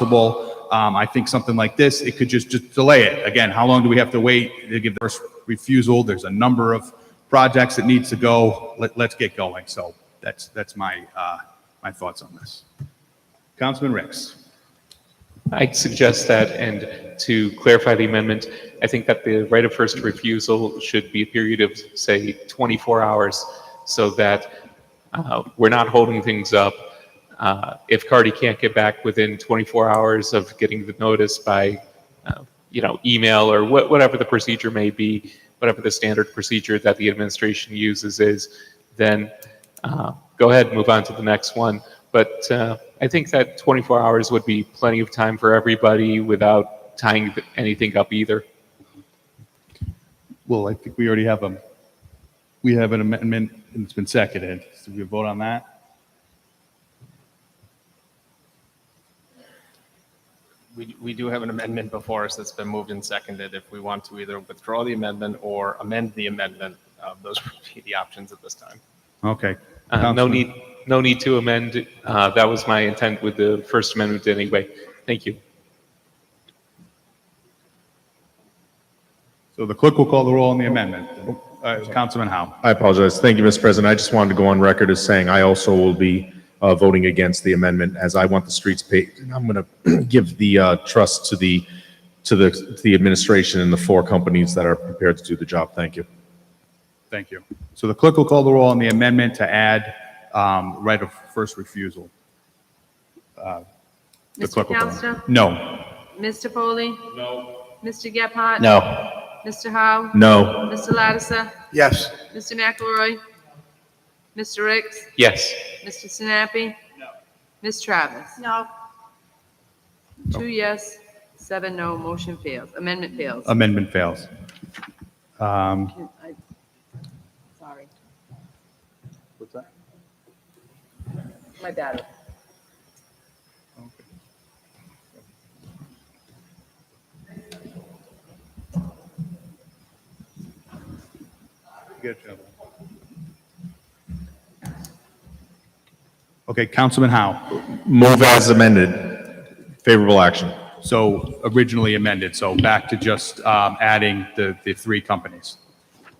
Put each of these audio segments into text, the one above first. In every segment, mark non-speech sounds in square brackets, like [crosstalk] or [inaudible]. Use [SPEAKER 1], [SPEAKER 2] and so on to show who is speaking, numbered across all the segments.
[SPEAKER 1] possible. Um, I think something like this, it could just, just delay it. Again, how long do we have to wait to give the first refusal? There's a number of projects that needs to go. Let, let's get going. So that's, that's my, uh, my thoughts on this. Councilman Ricks.
[SPEAKER 2] I suggest that, and to clarify the amendment, I think that the right of first refusal should be a period of, say, 24 hours, so that uh, we're not holding things up. Uh, If Cardi can't get back within 24 hours of getting the notice by, uh, you know, email or wha- whatever the procedure may be, whatever the standard procedure that the administration uses is, then uh, go ahead, move on to the next one. But uh, I think that 24 hours would be plenty of time for everybody without tying th- anything up either.
[SPEAKER 1] Well, I think we already have a, we have an amendment and it's been seconded. So we vote on that?
[SPEAKER 3] We, we do have an amendment before us that's been moved and seconded. If we want to either withdraw the amendment or amend the amendment, uh, those would be the options at this time.
[SPEAKER 1] Okay.
[SPEAKER 2] Uh, No
[SPEAKER 1] Councilman-
[SPEAKER 2] need, no need to amend. Uh, That was my intent with the First Amendment anyway. Thank you.
[SPEAKER 1] So the clerk will call the roll on the amendment. Uh, Councilman Howe.
[SPEAKER 4] I apologize. Thank you, Mr. President. I just wanted to go on record as saying I also will be uh, voting against the amendment as I want the streets paid. And I'm going to [clears throat] give the uh, trust to the, to the, to the administration and the four companies that are prepared to do the job. Thank you.
[SPEAKER 1] Thank you. So the clerk will call the roll on the amendment to add um, right of first refusal. The
[SPEAKER 5] Mr.
[SPEAKER 1] clerk will call.
[SPEAKER 5] Counselor?
[SPEAKER 1] No.
[SPEAKER 5] Mr. Foley? No. Mr. Gephardt?
[SPEAKER 4] No.
[SPEAKER 5] Mr. Howe?
[SPEAKER 4] No.
[SPEAKER 5] Mr. Ladisa?
[SPEAKER 6] Yes.
[SPEAKER 5] Mr. McElroy? Mr. Ricks?
[SPEAKER 2] Yes.
[SPEAKER 5] Mr. Sinapi? No. Ms. Travis? No. Two yes, seven no, motion fails, amendment fails.
[SPEAKER 1] Amendment fails. Um,
[SPEAKER 5] I- Sorry.
[SPEAKER 1] What's that?
[SPEAKER 5] My bad.
[SPEAKER 1] Good job. Okay, Councilman Howe.
[SPEAKER 4] Move as amended. Favorable action.
[SPEAKER 1] So originally amended, so back to just um, adding the, the three companies.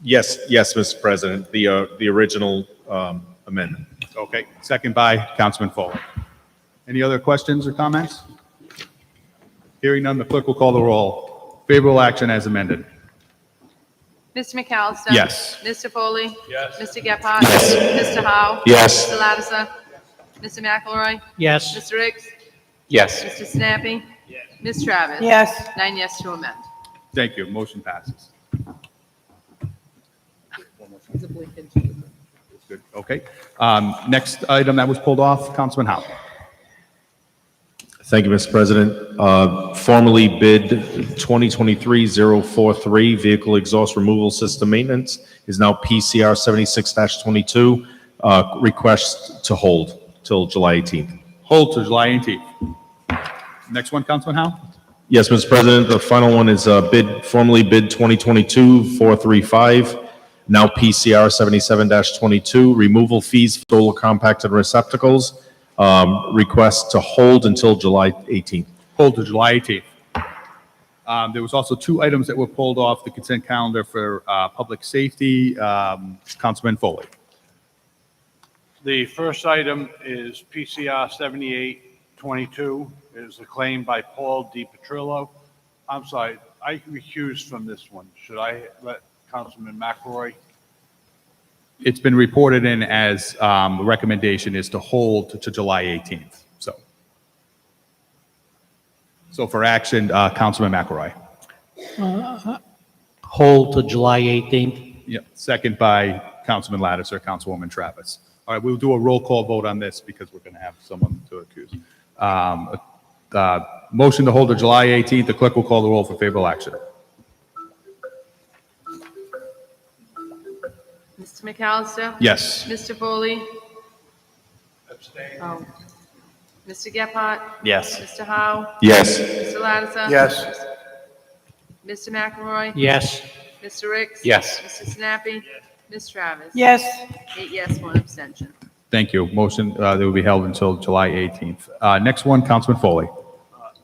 [SPEAKER 4] Yes, yes, Mr. President, the, uh, the original um, amendment.
[SPEAKER 1] Okay, second by Councilman Foley. Any other questions or comments? Hearing none, the clerk will call the roll. Favorable action as amended.
[SPEAKER 5] Mr. McAllister?
[SPEAKER 1] Yes.
[SPEAKER 5] Mr. Foley? Yes. Mr. Gephardt? Yes. Mr. Howe?
[SPEAKER 4] Yes.
[SPEAKER 5] Mr. Ladisa? Mr. McElroy?
[SPEAKER 7] Yes.
[SPEAKER 5] Mr. Ricks?
[SPEAKER 2] Yes.
[SPEAKER 5] Mr. Sinapi? Yes. Ms. Travis?
[SPEAKER 7] Yes.
[SPEAKER 5] Nine yes to amend.
[SPEAKER 1] Thank you, motion passes. Good, okay. Um, Next item that was pulled off, Councilman Howe.
[SPEAKER 4] Thank you, Mr. President. Uh, Formally bid 2023-043 Vehicle Exhaust Removal System Maintenance is now PCR 76-22. Uh, Request to hold till July 18th.
[SPEAKER 1] Hold to July 18th. Next one, Councilman Howe?
[SPEAKER 4] Yes, Mr. President, the final one is uh, bid, formally bid 2022-435, now PCR 77-22, removal fees for solar compacted receptacles. Um, Request to hold until July 18th.
[SPEAKER 1] Hold to July 18th. Um, There was also two items that were pulled off the consent calendar for uh, public safety. Um, Councilman Foley.
[SPEAKER 8] The first item is PCR 7822. It is a claim by Paul Di Petrillo. I'm sorry, I recused from this one. Should I let Councilman McElroy?
[SPEAKER 1] It's been reported in as, um, the recommendation is to hold to July 18th, so. So for action, uh, Councilman McElroy.
[SPEAKER 7] Hold to July 18th.
[SPEAKER 1] Yep, second by Councilman Lattiser, Councilwoman Travis. All right, we'll do a roll call vote on this because we're going to have someone to accuse. Um, uh, Motion to hold to July 18th. The clerk will call the roll for favorable action.
[SPEAKER 5] Mr. McAllister?
[SPEAKER 1] Yes.
[SPEAKER 5] Mr. Foley?
[SPEAKER 8] Abstain.
[SPEAKER 5] Oh. Mr. Gephardt?
[SPEAKER 6] Yes.
[SPEAKER 5] Mr. Howe?
[SPEAKER 4] Yes.
[SPEAKER 5] Mr. Ladisa?
[SPEAKER 8] Yes.
[SPEAKER 5] Mr. McElroy?
[SPEAKER 7] Yes.
[SPEAKER 5] Mr. Ricks?
[SPEAKER 2] Yes.
[SPEAKER 5] Mr. Sinapi? Ms. Travis?
[SPEAKER 7] Yes.
[SPEAKER 5] Eight yes, one abstention.
[SPEAKER 1] Thank you. Motion uh, that will be held until July 18th. Uh, Next one, Councilman Foley.